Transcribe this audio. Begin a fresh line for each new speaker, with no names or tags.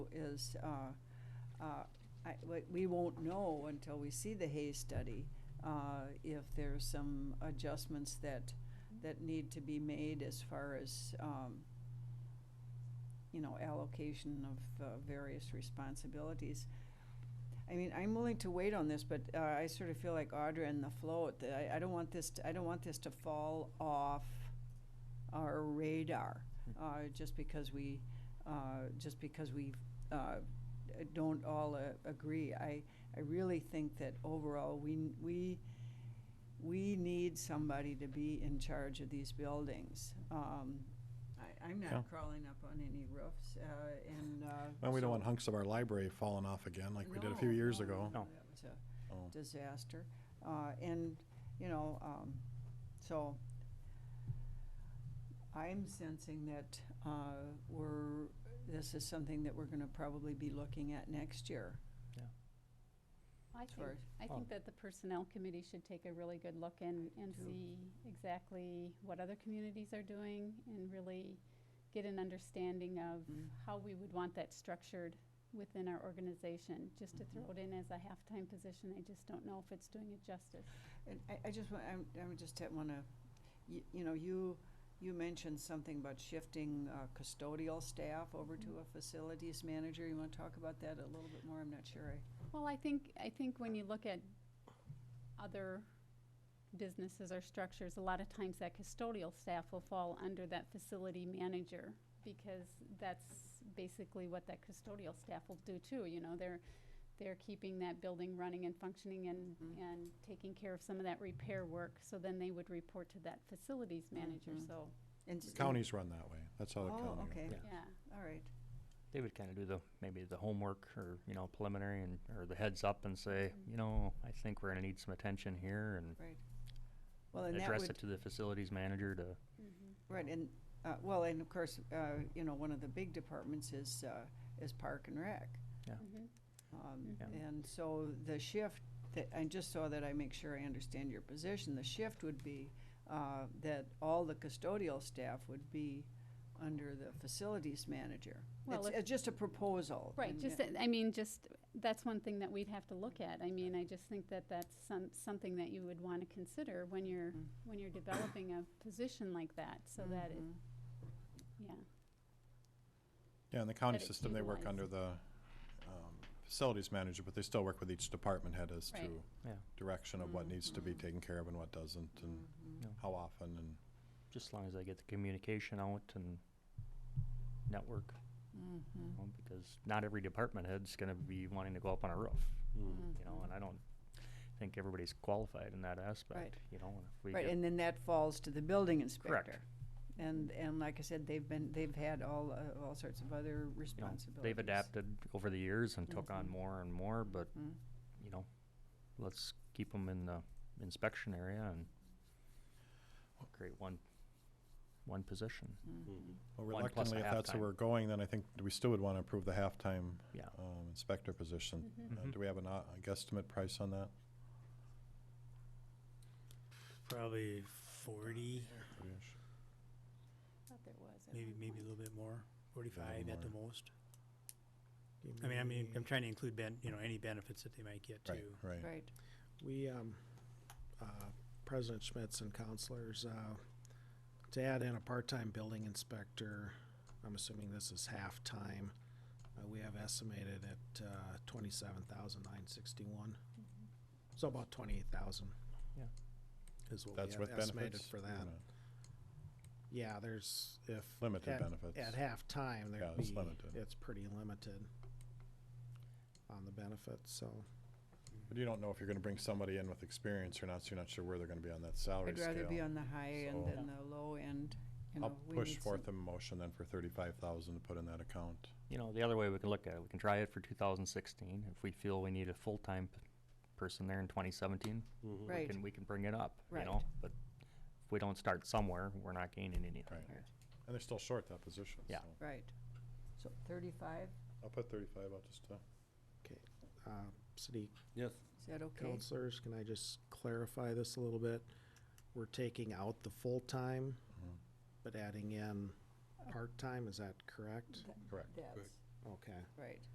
is, uh, uh, I- we- we won't know until we see the Hay study uh, if there's some adjustments that, that need to be made as far as, um, you know, allocation of uh, various responsibilities. I mean, I'm willing to wait on this, but uh, I sort of feel like Audra and the float, that I, I don't want this, to- I don't want this to fall off our radar,
Hmm.
uh, just because we, uh, just because we uh, don't all uh, agree. I, I really think that overall, we, we, we need somebody to be in charge of these buildings. Um, I, I'm
Yeah.
not crawling up on any roofs, uh, and. uh,
Well, we
so-
don't want hunks of our library falling off again like we did a few
no,
years
no,
ago.
no, That was a
Oh.
disaster. Uh, And, you know, um, so I'm sensing that uh, we're, this is something that we're going to probably be looking at next year.
I
Sorry.
think, I
Oh.
think that the Personnel Committee should take a really good look and, and
too.
see exactly what other communities are doing and really get an understanding of
Mm.
how we would want that structured within our organization. Just to throw it in as a half-time position, I just don't know if it's doing it justice.
And I, I just, wa- I'm, I'm just want to, you, you know, you, you mentioned something about shifting uh, custodial staff over to a facilities manager. You want to talk about that a little bit more? I'm not sure I.
Well, I think, I think when you look at other businesses or structures, a lot of times that custodial staff will fall under that facility manager because that's basically what that custodial staff will do too, you know, they're, they're keeping that building running and functioning and,
Mhm.
and taking care of some of that repair work, so then they would report to that facilities manager,
Mhm.
so,
and
The
s-
Counties run that way. That's how the uh, county.
Oh,
run.
okay,
Yeah.
yeah.
all right.
They would kind of do the, maybe the homework or, you know, preliminary and, or the heads up and say, you know, I think we're gonna need some attention here and
Right. Well, and that
address it
would,
to the facilities manager to,
mhm.
right, and, uh, well, and of course, uh, you know, one of the big departments is, uh, is Park and Rec.
yeah.
Mhm.
Um,
Yeah.
And so the shift, that, I just so that I make sure I understand your position, the shift would be uh, that all the custodial staff would be under the facilities manager.
Well,
It's
if-
it's just a proposal.
Right,
and-
just, that- I mean, just, that's one thing that we'd have to look at. I mean, I just think that that's some, something that you would want to consider when you're,
Mm.
when you're developing a position like that, so that it,
Mhm.
yeah.
Yeah, in the county
That it's
system, they work
utilized.
under the um, facilities manager, but they still work with each department head as
Right.
to
Yeah,
direction of what needs to be
Mhm.
taken care of and what doesn't
Mm-hmm.
and
Mhm.
no,
how often and
just as long as they get the communication out and network, you
Mhm.
know, because not every department head's gonna be wanting to go up on a roof,
Mm.
you know, and I don't think everybody's qualified in that aspect,
Right.
you know, and if we
Right,
get-
and then that falls to the building inspector.
Correct.
And, and like I said, they've been, they've had all, uh, all sorts of other
you know,
responsibilities.
they've adapted over the years and took on
Mhm.
more and more, but
Mm.
you know, let's keep them in the inspection area and create one, one position.
well,
One plus a
reluctantly, if that's
halftime.
where we're going, then I think we still would want to approve the halftime
Yeah.
um, inspector position.
Mm-hmm.
Mhm.
Uh, Do we have an, uh, a guesstimate price on that?
Probably forty,
Forty-ish?
Thought there was. at
maybe
one
maybe a
point.
little bit more, forty-five at the
more.
most. I mean, I mean, I'm trying to include ben, you know, any benefits that they might get
Right,
too.
right.
Right.
We, um, uh, President Schmitz and counselors, uh, to add in a part-time building inspector, I'm assuming this is half-time, uh, we have estimated at, uh, twenty-seven thousand nine sixty-one. So about twenty-eight thousand.
Yeah.
Is what we
That's
have
with
estimated
benefits?
for
or
that.
not?
Yeah, there's, if.
Limited
at-
benefits.
At halftime,
Yeah,
there'd
it's
be,
limited.
it's pretty limited on the benefits, so.
But you don't know if you're gonna bring somebody in with experience or not, so you're not sure where they're gonna be on that salary
I'd
scale.
rather be on the high end
So-
than the low end, you know.
I'll
we
push
need
forth a
some-
motion then for thirty-five thousand to put in that account.
You know, the other way we can look at it, we can try it for two thousand sixteen. If we feel we need a full-time p- person there in twenty seventeen, we
Right.
can, we can bring it up, you
Right.
know? But if we don't start somewhere, we're not gaining anything
Right.
here.
And they're still short that position,
Yeah.
so.
Right. So thirty-five,
I'll put thirty-five out just to,
Okay, uh, city
Yes.
is that okay?
counselors, can I just clarify this a little bit? We're taking out the full-time, but adding in part-time, is that correct?
Th-
correct.
That's,
Okay.
right.